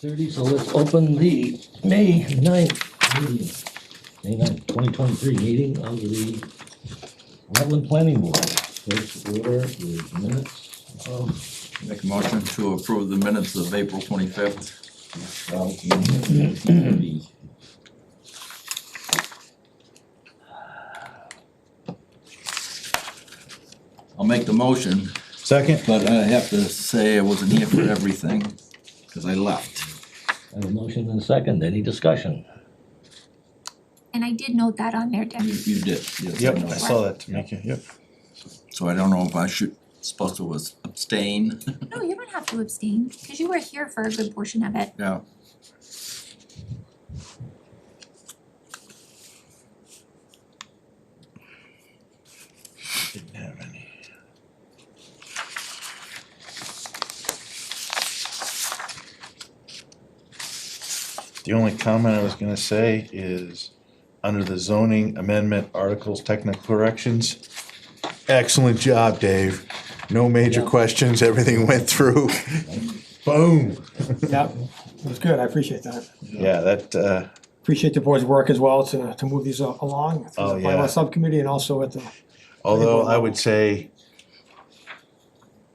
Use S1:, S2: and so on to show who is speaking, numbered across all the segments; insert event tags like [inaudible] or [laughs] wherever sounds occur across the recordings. S1: thirty, so let's open the May 9th meeting. May 9th, twenty twenty-three meeting of the Rutland Planning Board. First order is minutes of,
S2: Make a motion to approve the minutes of April twenty-fifth.
S1: well, the-
S2: I'll make the motion,
S3: Second?
S2: but I have to say I wasn't here for everything, cause I left.
S1: I have a motion and a second, any discussion?
S4: And I did note that on there,
S2: You,
S4: Debbie.
S2: you did, yes, I
S3: Yep, I
S2: know.
S3: saw that, Tamika, yep.
S2: So I don't know if I should, supposed to was abstain,
S4: No, you don't have to abstain, cause you were here for a good portion of it.
S2: yeah.
S3: Didn't have any. The only comment I was gonna say is, under the zoning amendment articles, technical corrections. Excellent job, Dave. No major
S1: Yeah.
S3: questions, everything went through. Boom.
S5: Yep, it was good, I appreciate that.
S3: Yeah, that, uh,
S5: Appreciate the board's work as well to, to move these a- along through
S3: Oh,
S5: the
S3: yeah.
S5: bylaw subcommittee and also at the,
S3: Although I would say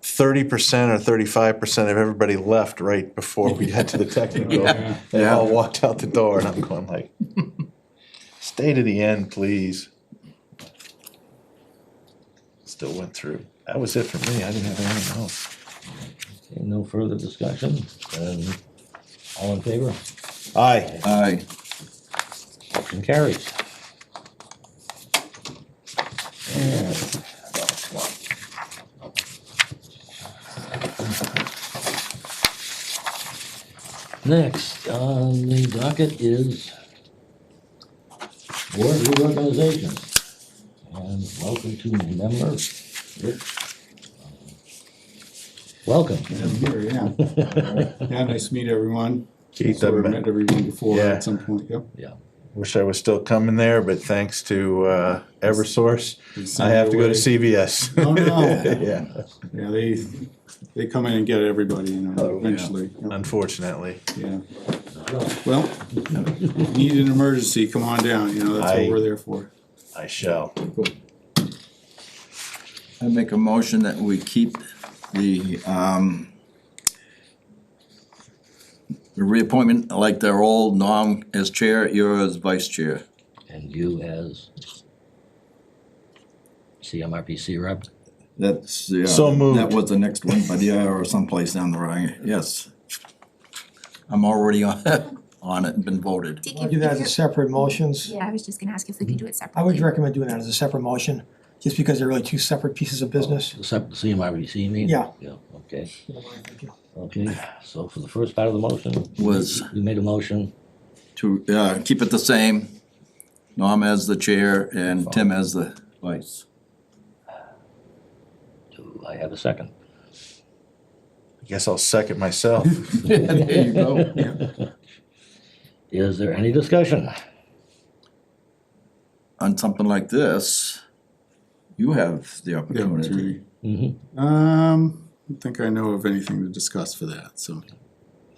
S3: thirty percent or thirty-five percent of everybody left right before we got to the
S6: [laughs]
S3: technical. They all walked out the door and I'm going like, stay to the end, please. Still went through. That was it for me. I didn't have anything else.
S1: Okay, No further discussion, and all in favor,
S3: Aye.
S2: Aye,
S1: motion carries. And- Next on the docket is board reorganization. And welcome to member Rick. Welcome. [laughs]
S3: [laughs]
S6: Yeah, yeah, nice to meet everyone.
S3: Keith,
S6: So
S3: I've
S6: I've
S3: met-
S6: met everyone before
S3: Yeah.
S6: at some point, yep.
S1: Yeah.
S3: Wish I was still coming there, but thanks to uh, Eversource,
S6: They send
S3: I have to go to
S6: away-
S3: CVS.
S6: Oh, no.
S3: [laughs] Yeah,
S6: Yeah, they, they come in and get everybody, you
S3: Oh,
S6: know, eventually, Yep,
S3: unfortunately.
S6: yeah. Well, need an emergency, come on down, you know, that's
S3: I-
S6: what we're there for.
S3: I shall.
S2: I make a motion that we keep the, um, the reappointment like they're old, Norm as chair, you're as vice chair.
S1: And you as CMRPC rep?
S2: That's, yeah.
S3: So moved.
S2: That was the next one, but yeah, or someplace down the line, yes. I'm already on, [laughs] on it, been voted.
S4: Dick,
S5: I'll
S4: if
S5: do that as a
S4: you're-
S5: separate motions.
S4: Yeah, I was just gonna ask if we could do it
S5: I
S4: separately.
S5: would recommend doing that as a separate motion, just because they're really two separate pieces of business.
S1: Except the CMRPC meeting?
S5: Yeah.
S1: Yeah, okay, okay. So for the first part of the motion,
S2: Was
S1: you made a motion,
S2: to, uh, keep it the same, Norm as the chair and Tim as the vice. [laughs]
S1: do I have a second?
S3: I guess I'll second myself.
S2: [laughs] There you go.
S1: [laughs] Is there any discussion?
S2: On something like this, you have the
S6: Yeah,
S2: opportunity.
S6: Terry.
S1: Mhm.
S6: Um, I don't think I know of anything to discuss for that, so,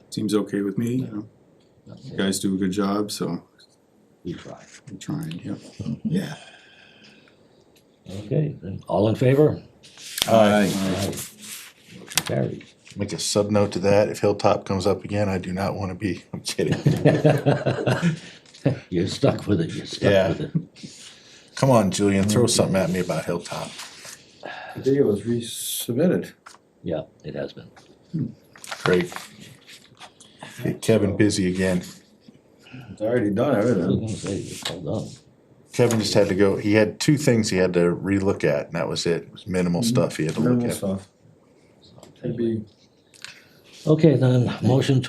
S6: seems okay with me, you know. You guys do a good job, so,
S1: We try.
S6: I'm trying, yep, yeah.
S1: Okay, then, all in favor?
S2: Aye.
S1: Motion carries. [laughs]
S3: Make a sub note to that. If Hilltop comes up again, I do not want to be. [laughs] I'm kidding.
S1: You're stuck with it, you're
S3: Yeah.
S1: stuck with it.
S3: Come on, Julian, throw something at me about Hilltop.
S6: The video was resubmitted.
S1: Yeah, it has been.
S3: Great. Get Kevin busy again.
S6: It's already done,
S1: I
S6: everything.
S1: was gonna say, it's all done.
S3: Kevin just had to go. He had two things he had to relook at, and that was it. It was minimal stuff he had to look at.
S6: stuff.
S1: Okay, then, motion to